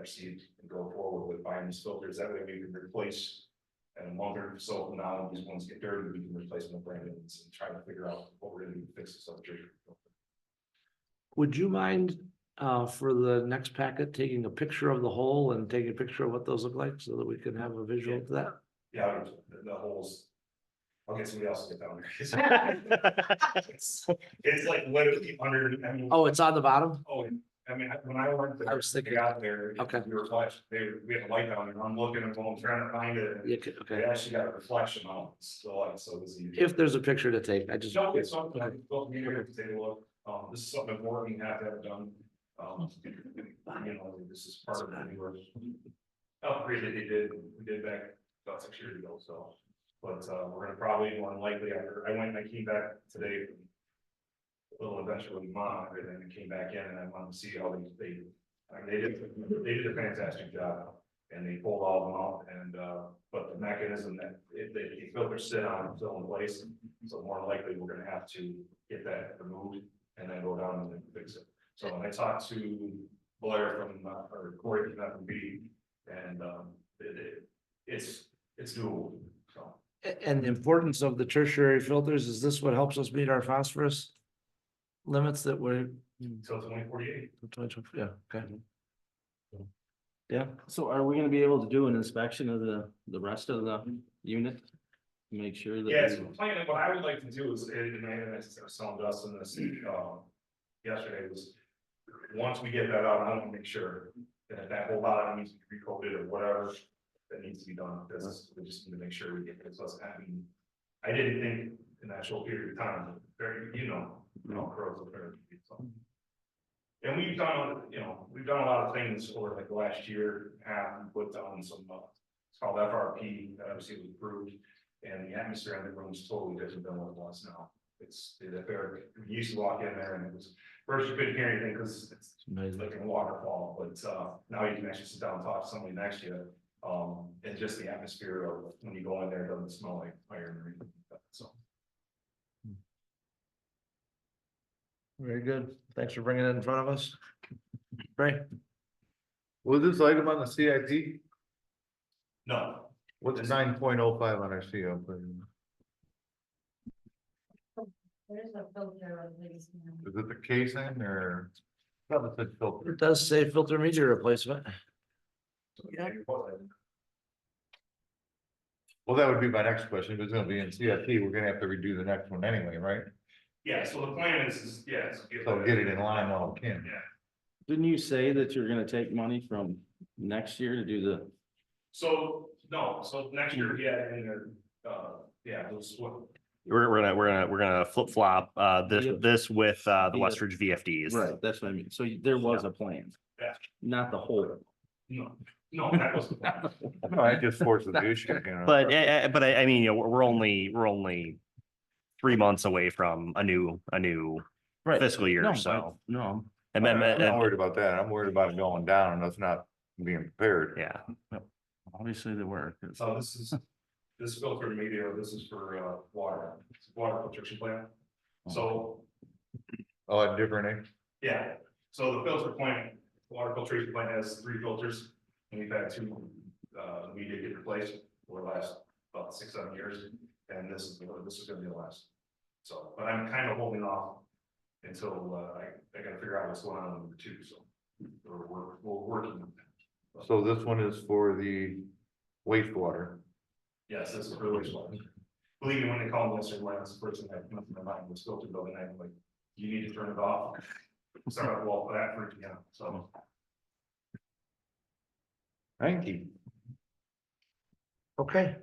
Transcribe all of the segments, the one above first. received and go forward with buying these filters. That way we can replace. And wonder, so now when these ones get dirty, we can replace them with brand new ones and try to figure out what we're gonna do to fix this up. Would you mind, uh, for the next packet, taking a picture of the hole and taking a picture of what those look like so that we can have a visual to that? Yeah, the- the holes. I'll get somebody else to get down there. It's it's like literally under, I mean. Oh, it's on the bottom? Oh, and- I mean, I- when I went I there, was they thinking- got there. Okay. We were watching, they, we had a light down and I'm looking and I'm trying to find it. Yeah, okay, They okay. actually got a reflection on it, so like, so it was easy. If there's a picture to take, I just. No, it's something I built me here to take a look, um, this is something I'm working at, have done, um, you know, this is part of the newer. Upgrade that they did, we did back about six years ago, so, but, uh, we're gonna probably more than likely, after, I went and I came back today. from a Little adventure with mom, and then I came back in and I wanted to see how they, they, I mean, they did, they did a fantastic job. And they pulled all of them off and, uh, but the mechanism that, if they, the filters sit on, still in place, so more than likely, we're gonna have to get that removed and then go down and then fix it. So I talked to Blair from, uh, or Corey from F and B, and, um, it, it, it's, it's doable, so. A- And the importance of the tertiary filters, is this what helps us meet our phosphorus? Limits that we're, Until twenty forty-eight, yeah, okay. Yeah, So are we gonna be able to do an inspection of the, the rest of the unit? Make sure that. yeah, it's we- planning, what I would like to do is, and I, and I was telling Dustin this, um, yesterday was. Once we get that out, I want to make sure that that whole lot needs to be recoded or whatever that needs to be done, because we just need to make sure we get this, let's, I mean. I didn't think in that short period of time, very, you know, you know, crows are very, so. And we've done, you know, we've done a lot of things over like the last year, and we put down some, uh, it's called FRP, that obviously was approved. And the atmosphere in the room is totally different than what it was now. It's, the air, you used to walk in there and it was, first you couldn't hear anything because it's it's amazing. like a waterfall, but uh now you can actually sit down and talk to somebody next to you. Um, and just the atmosphere of when you go in there, it doesn't smell like iron or anything like that, so. Very good. Thanks for bringing it in front of us. Ray? Was this item on the CIP? No, What's nine point oh five on our CIP? There's a filter of these. now. Is it the case in or? Probably said filter. It does say filter media replacement. yeah, it wasn't. Well, that would be my next question. If it's gonna be in CIP, we're gonna have to redo the next one anyway, right? yeah, so the plan is, is, yeah. it's- So get it in line while we can. Yeah. Didn't you say that you're gonna take money from next year to do the, So, no, so next year, yeah, and then, uh, yeah, those what, We're, we're gonna, we're gonna, we're gonna flip flop, uh, this, Yeah. this with, uh, the Yeah. Westridge VFDs. right, that's what I mean, so you- there was a plan. Yeah. Not the whole. no, no, that was. No, I just forced the issue. you know. But, eh, eh, but I, I mean, you know, we're- we're only, we're only three months away from a new, a new Right. fiscal No, year, I- so. No, And I'm then, and- not worried about that. I'm worried about it going down and us not being prepared. yeah, obviously there were. 'cause- So Oh. this is, this filter media, this is for uh water, it's a water filtration plant. So Oh, a different, Yeah, so the filter plant, water filtration plant has three filters, and we've had two, uh, we did get replaced for the last about six, seven years. And this is, the- this is gonna be the last, so, but I'm kind of holding off until, uh, I, I gotta figure out what's going on with number two, so. We're, we're, we're working on that. so this one is for the wastewater. Yes, this is really smart. Believe me, when they called Western Alliance, the first thing that came to my mind was filter building, I'm like, you need to turn it off. Start at wall for that, for, yeah, so. Thank you. Okay.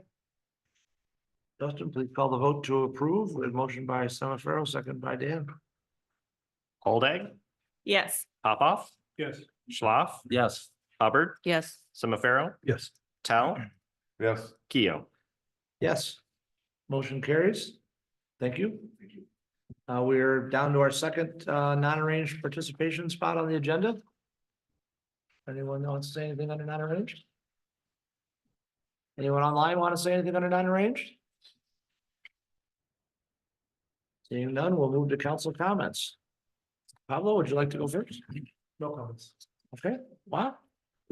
Justin, please call the vote to approve. We have motion by Semifero, second by Dan. Holdag, Yes. Popoff, Yes. Schlaf, Yes. Hubbard, Yes. Semifarrow, Yes. Tao, Yes, Keo. Yes. Motion carries. Thank you. Uh, we're down to our second, uh, non-arranged participation spot on the agenda. Anyone want to say anything under non-arranged? Anyone online want to say anything under non-arranged? Seeing none, we'll move to council comments. Pablo, would you like to go first? No comments. Okay, wow.